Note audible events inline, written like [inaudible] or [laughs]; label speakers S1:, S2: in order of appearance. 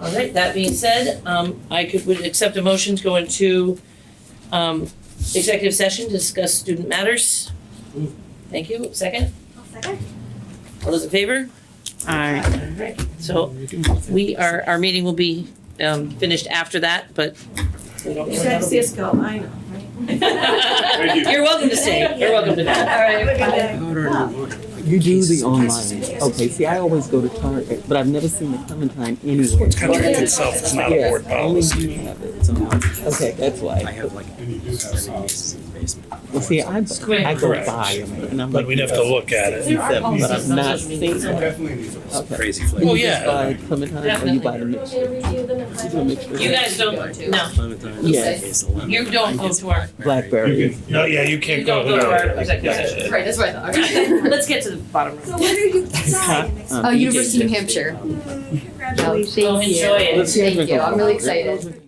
S1: All right, that being said, um, I could, would accept a motion to go into, um, executive session to discuss student matters. Thank you, second,
S2: second.
S1: all those in favor?
S3: Aye.
S1: All right, so we are, our meeting will be, um, finished after that, but we don't know
S2: You
S1: when that'll
S2: guys
S1: be.
S2: see us go, I know, right?
S4: Thank you.
S1: You're welcome to stay, you're welcome to not.
S2: All right, bye.
S5: You do the online. Okay, see, I always go to Target, but I've never seen the Clementine anywhere.
S6: It's contract itself, it's not a
S5: Yeah,
S6: board
S5: I only
S6: policy.
S5: dream of it somehow. Okay, that's
S3: I
S5: why.
S3: have like
S4: And you do have
S3: seven
S4: some-
S3: cases in the basement.
S5: Well, see, I, I go
S6: Correct.
S5: buy them and I'm like.
S6: But we'd have to look at it.
S5: Except, but I've not
S1: Social
S5: seen
S1: media.
S4: Some
S5: them.
S4: definitely needs a-
S5: Okay.
S3: Crazy
S5: And
S3: flavor.
S6: Well,
S5: you just
S6: yeah.
S5: buy Clementine or you buy the mixture?
S1: You guys don't, no,
S3: Clementine,
S5: Yeah.
S3: case of lemon.
S1: you don't go to our,
S5: Blackberry.
S4: You can- No, yeah, you can't
S1: you don't go to our executive
S6: Yeah.
S1: session.
S2: that's what I
S1: [laughs] Let's get to the bottom.
S2: So where do you decide?
S5: Huh?
S7: Oh,
S5: Um,
S7: University of New
S5: EJC.
S7: Hampshire.
S2: Hmm, Congratulations.
S1: Go enjoy it.
S5: Let's see if we
S7: Thank you.
S5: can-
S7: I'm really excited.